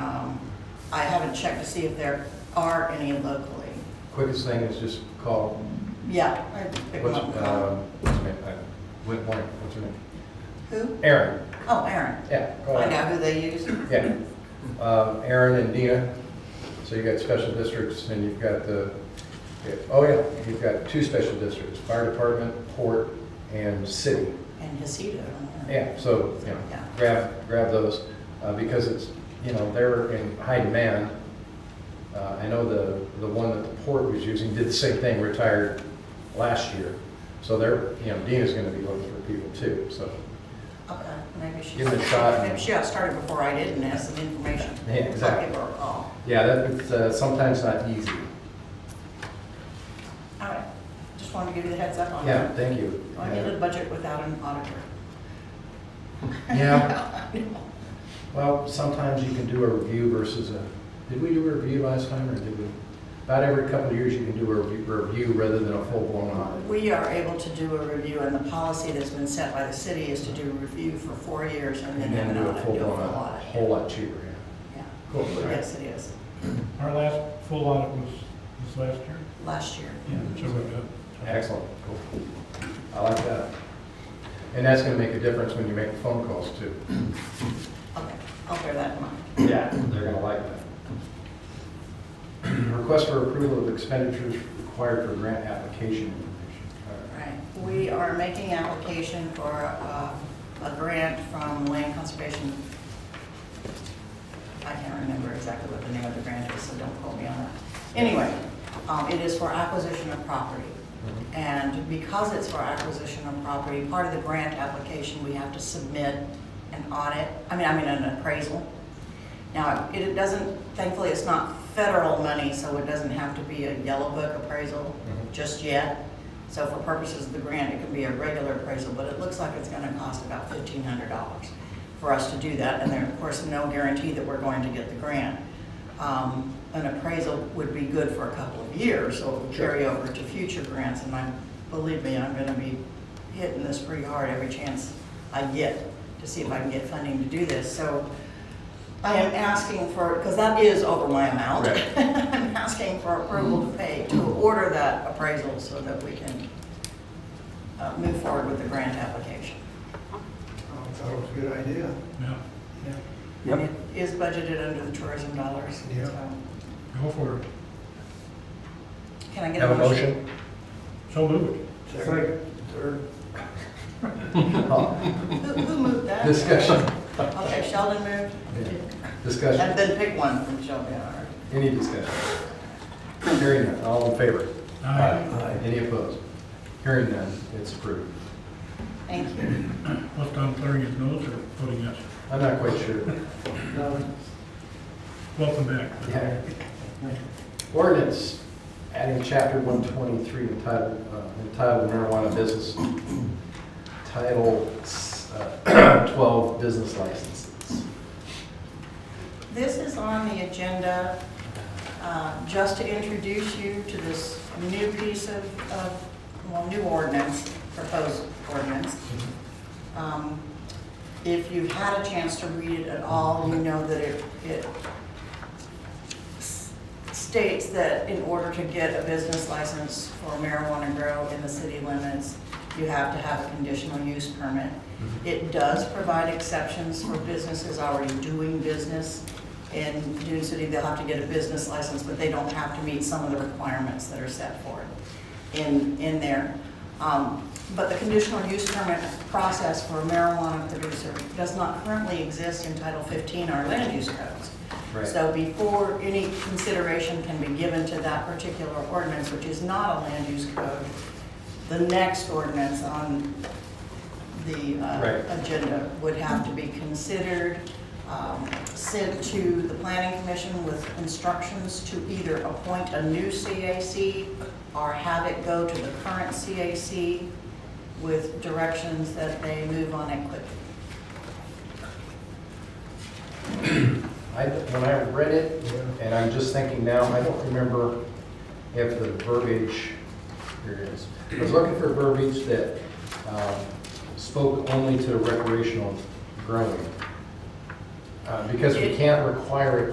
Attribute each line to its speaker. Speaker 1: Um, I haven't checked to see if there are any locally.
Speaker 2: Quickest thing is just call,
Speaker 1: Yeah. I'd pick them
Speaker 2: what's,
Speaker 1: up and call them.
Speaker 2: um, what's her name? Uh, Wait, wait, what's her name?
Speaker 1: Who?
Speaker 2: Erin,
Speaker 1: Oh, Aaron.
Speaker 2: yeah, call
Speaker 1: I
Speaker 2: her.
Speaker 1: know who they use.
Speaker 2: Yeah. Um, Erin and Dina, so you got special districts and you've got the, yeah, oh yeah, you've got two special districts, fire department, port, and city.
Speaker 1: And Hasido. I don't know.
Speaker 2: Yeah, so, you know,
Speaker 1: Yeah.
Speaker 2: grab, grab those, uh, because it's, you know, they're in high demand. Uh, I know the, the one that the port was using did the same thing, retired last year. So they're, you know, Dean is gonna be looking for people too, so,
Speaker 1: Okay, maybe she.
Speaker 2: Give it a shot.
Speaker 1: Maybe she got started before I did and has some information.
Speaker 2: Yeah, exactly.
Speaker 1: I'll give her a call.
Speaker 2: yeah, that's uh, sometimes not easy.
Speaker 1: All right, just wanted to give you the heads up on
Speaker 2: Yeah,
Speaker 1: that.
Speaker 2: thank you.
Speaker 1: I needed a budget without an auditor.
Speaker 2: Yeah. Well, sometimes you can do a review versus a, did we do a review last time or did we? About every couple of years, you can do a review, review rather than a full-blown audit.
Speaker 1: We are able to do a review, and the policy that's been set by the city is to do a review for four years and then
Speaker 2: And
Speaker 1: have
Speaker 2: then
Speaker 1: an
Speaker 2: do a
Speaker 1: audit,
Speaker 2: full
Speaker 1: do a full
Speaker 2: blown, a
Speaker 1: audit.
Speaker 2: whole lot cheaper,
Speaker 1: Yeah.
Speaker 2: yeah. Cool. all right.
Speaker 1: Yes, it is,
Speaker 3: Our last full audit was, was last year.
Speaker 1: last year.
Speaker 3: So we got.
Speaker 2: Excellent, cool. I like that. And that's gonna make a difference when you make phone calls too.
Speaker 1: Okay, I'll bear that in mind.
Speaker 2: Yeah. They're gonna like that. Request for approval of expenditures required for grant application information. All right.
Speaker 1: Right, we are making application for uh, a grant from Land Conservation. I can't remember exactly what the name of the grant is, so don't quote me on that. Anyway, um, it is for acquisition of property. And because it's for acquisition of property, part of the grant application, we have to submit an audit, I mean, I mean, an appraisal. Now, it doesn't, thankfully, it's not federal money, so it doesn't have to be a yellow book appraisal
Speaker 2: Mhm.
Speaker 1: just yet. So for purposes of the grant, it can be a regular appraisal, but it looks like it's gonna cost about fifteen hundred dollars for us to do that, and there, of course, no guarantee that we're going to get the grant. Um, An appraisal would be good for a couple of years, so it would carry over to future grants, and I, believe me, I'm gonna be hitting this pretty hard every chance I get to see if I can get funding to do this, so I am asking for, because that is over my amount.
Speaker 2: Right.
Speaker 1: I'm asking for approval to pay, to order that appraisal so that we can uh, move forward with the grant application.
Speaker 4: I thought it Oh, was a good idea.
Speaker 3: Yeah,
Speaker 4: Yeah.
Speaker 1: And it is budgeted under the tourism dollars.
Speaker 4: Yeah.
Speaker 1: so-
Speaker 3: go for it.
Speaker 1: Can I get
Speaker 2: Have a motion?
Speaker 3: So moved.
Speaker 4: Second, third.
Speaker 1: Who who moved that?
Speaker 2: Discussion.
Speaker 1: Okay, Sheldon moved.
Speaker 2: Discussion,
Speaker 1: And then pick one from Sheldon, all right.
Speaker 2: any discussion? Hearing none, all in favor? Any opposed? Hearing none, it's approved.
Speaker 1: Thank you.
Speaker 3: Left on clearing his nose or voting yes?
Speaker 2: I'm not quite sure.
Speaker 4: No,
Speaker 3: Welcome back.
Speaker 2: Yeah. Ordinance, adding chapter one twenty-three entitled, uh, entitled marijuana business, title uh, twelve business licenses.
Speaker 1: This is on the agenda uh, just to introduce you to this new piece of, of, well, new ordinance, proposed ordinance. Um, If you've had a chance to read it at all, you know that it, it s- states that in order to get a business license for marijuana grow in the city limits, you have to have a conditional use permit. It does provide exceptions for businesses already doing business. In Dune City, they'll have to get a business license, but they don't have to meet some of the requirements that are set for it in, in there. Um, But the conditional use permit process for a marijuana producer does not currently exist in Title 15, our land use codes.
Speaker 2: Right.
Speaker 1: So before any consideration can be given to that particular ordinance, which is not a land use code, the next ordinance on the
Speaker 2: Right.
Speaker 1: uh, agenda would have to be considered, um, sent to the planning commission with instructions to either appoint a new CAC or have it go to the current CAC with directions that they move on it quickly.
Speaker 2: I, when I read it, and I'm just thinking now, I don't remember if the verbiage, here it is. I was looking for verbiage that um, spoke only to recreational growing. Uh, Because we can't require it